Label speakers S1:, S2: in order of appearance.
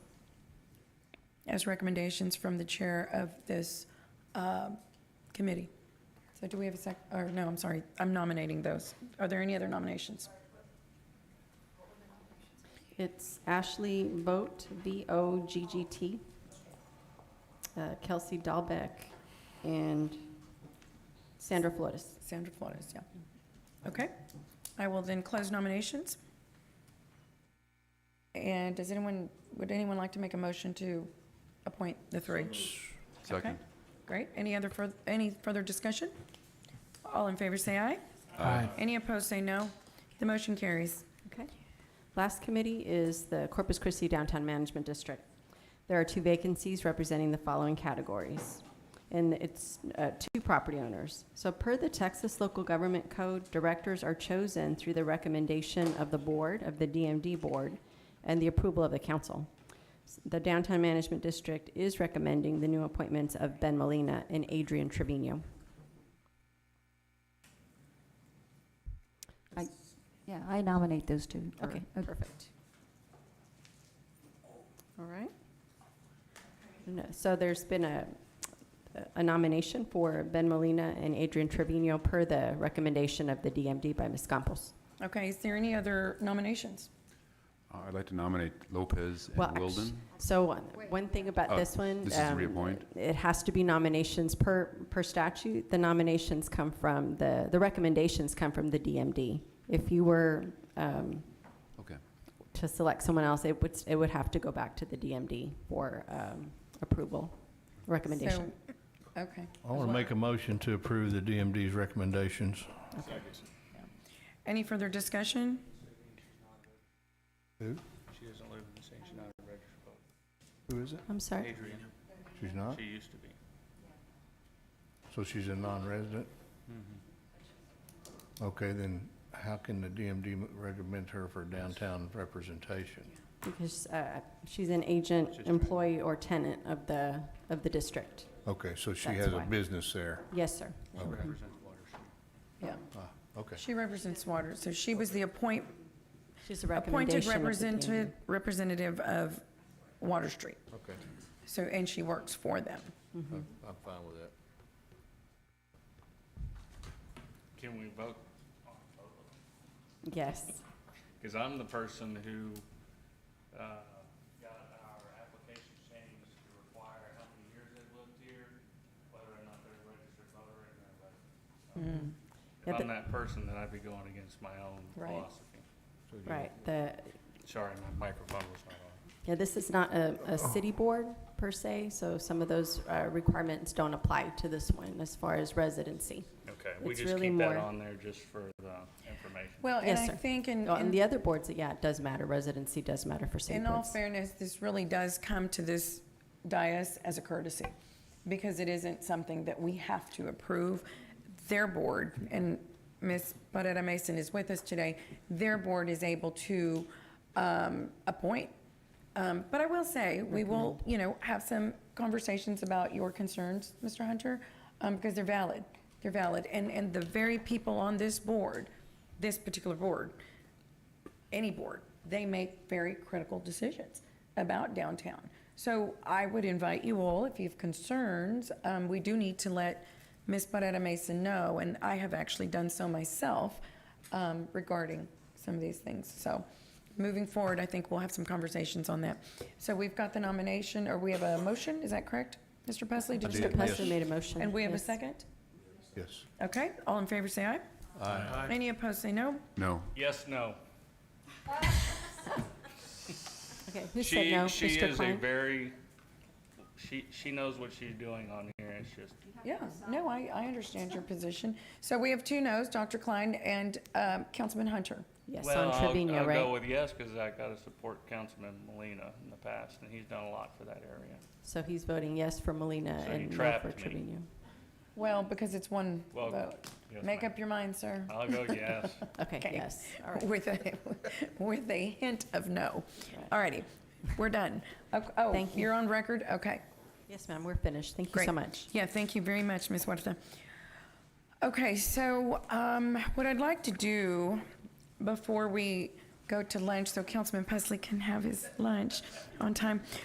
S1: as recommendations from the chair of this uh, committee. So do we have a sec, or no, I'm sorry, I'm nominating those. Are there any other nominations?
S2: It's Ashley Boat, B-O-G-G-T, uh, Kelsey Dahlbeck, and Sandra Flores.
S1: Sandra Flores, yeah. Okay, I will then close nominations. And does anyone, would anyone like to make a motion to appoint the three?
S3: Second.
S1: Great, any other, further any further discussion? All in favor, say aye.
S3: Aye.
S1: Any opposed, say no. The motion carries.
S2: Okay. Last committee is the Corpus Christi Downtown Management District. There are two vacancies representing the following categories, and it's uh, two property owners. So per the Texas Local Government Code, directors are chosen through the recommendation of the board, of the DMD board, and the approval of the council. S- The Downtown Management District is recommending the new appointments of Ben Molina and Adrian Trevino.
S4: Yeah, I nominate those two. or-
S2: Okay,
S4: uh,
S2: perfect. All right. No, So there's been a, a nomination for Ben Molina and Adrian Trevino per the recommendation of the DMD by Ms. Campos.
S1: Okay, is there any other nominations?
S3: Uh, I'd like to nominate Lopez
S2: Well,
S3: and
S2: actu-
S3: Wilden.
S2: So one- one thing about
S3: Oh,
S2: this one.
S3: this is
S2: um,
S3: reappoint?
S2: It has to be nominations per, per statute. The nominations come from, the, the recommendations come from the DMD. If you were um,
S3: Okay.
S2: to select someone else, it would, it would have to go back to the DMD for um, approval, recommendation.
S1: So- Okay.
S5: I want to make a motion to approve the DMD's recommendations.
S1: Any further discussion?
S6: She doesn't live in the same, she's not a registered voter.
S5: Who is it?
S2: I'm sorry.
S6: Adrian,
S5: She's not?
S6: she used to be.
S5: So she's a non-resident?
S6: Mm-hmm.
S5: Okay, then how can the DMD recommend her for downtown representation?
S2: Because uh, she's an agent, employee, or tenant of the, of the district.
S5: Okay, so she
S2: That's
S5: has a
S2: why.
S5: business there.
S2: Yes, sir.
S6: She represents Water
S1: Yeah.
S5: Ah,
S2: Mm-hmm.
S5: Okay.
S1: She represents Water, so she was the appoint,
S2: She's a
S1: appointed
S2: recommendation of the
S1: representative,
S2: DMD.
S1: representative of Water Street.
S5: Okay,
S1: So, and she works for them.
S5: I'm I'm fine with that.
S6: Can we vote?
S2: Yes.
S6: Because I'm the person who, uh, got our application changed to require how many years they've lived here, whether or not they're a registered voter and they're registered.
S2: Hmm. Yeah,
S6: If
S2: but-
S6: I'm that person, then I'd be going against my own
S1: Right.
S6: philosophy.
S5: So you-
S2: Right. The,
S6: Sorry, my microphone was not on.
S2: yeah, this is not a,
S6: Oh.
S2: a city board per se, so some of those uh, requirements don't apply to this one as far as residency.
S6: Okay, we
S2: It's
S6: just
S2: really
S6: keep that
S2: more-
S6: on there just for the information.
S1: Well, and
S2: Yes,
S1: I
S2: sir.
S1: think in,
S2: Oh, And
S1: in-
S2: the other boards, yeah, it does matter. Residency does matter for city
S1: in all
S2: boards.
S1: fairness, this really does come to this dais as a courtesy, because it isn't something that we have to approve. Their board, and Ms. Barrera Mason is with us today, their board is able to um, appoint. Um, But I will say, we will, you know, have some conversations about your concerns, Mr. Hunter, um, because they're valid. They're valid. And, and the very people on this board, this particular board, any board, they make very critical decisions about downtown. So I would invite you all, if you have concerns, um, we do need to let Ms. Barrera Mason know, and I have actually done so myself um, regarding some of these things. So moving forward, I think we'll have some conversations on that. So we've got the nomination, or we have a motion, is that correct? Mr. Pesley, did you?
S2: Mr. Plesser made a motion.
S1: And we have a
S2: Yes.
S1: second?
S5: Yes.
S1: Okay, all in favor, say aye. Aye. Any opposed, say no.
S3: No.
S6: Yes, no.
S2: Okay, who said
S6: She,
S2: no?
S6: she
S2: Mr.
S6: is a
S2: Klein?
S6: very, she, she knows what she's doing on here, it's just,
S1: Yeah, no, I, I understand your position. So we have two noes, Dr. Klein and um, Councilman Hunter.
S2: Yes,
S6: well,
S2: on Trevino,
S6: I'll, I'll go
S2: right?
S6: with yes, because I gotta support Councilman Molina in the past, and he's done a lot for that area.
S2: So he's voting yes for Molina
S6: So you
S2: and no
S6: trapped
S2: for
S6: me.
S2: Trevino.
S1: Well, because it's one
S6: Well,
S1: vote.
S6: yes,
S1: Make
S6: ma'am. Uh,
S1: up your mind, sir,
S6: I'll go yes.
S2: Okay,
S1: Okay.
S2: yes, all right.
S1: with a, with a hint of no.
S2: Right.
S1: All righty, we're done. Oh, Oh,
S2: Thank you.
S1: you're on record? Okay.
S2: Yes, ma'am, we're finished. Thank you
S1: Great.
S2: so much.
S1: Yeah, thank you very much, Ms. Huerta. Okay, so um, what I'd like to do before we go to lunch, so Councilman Pesley can have his lunch on time,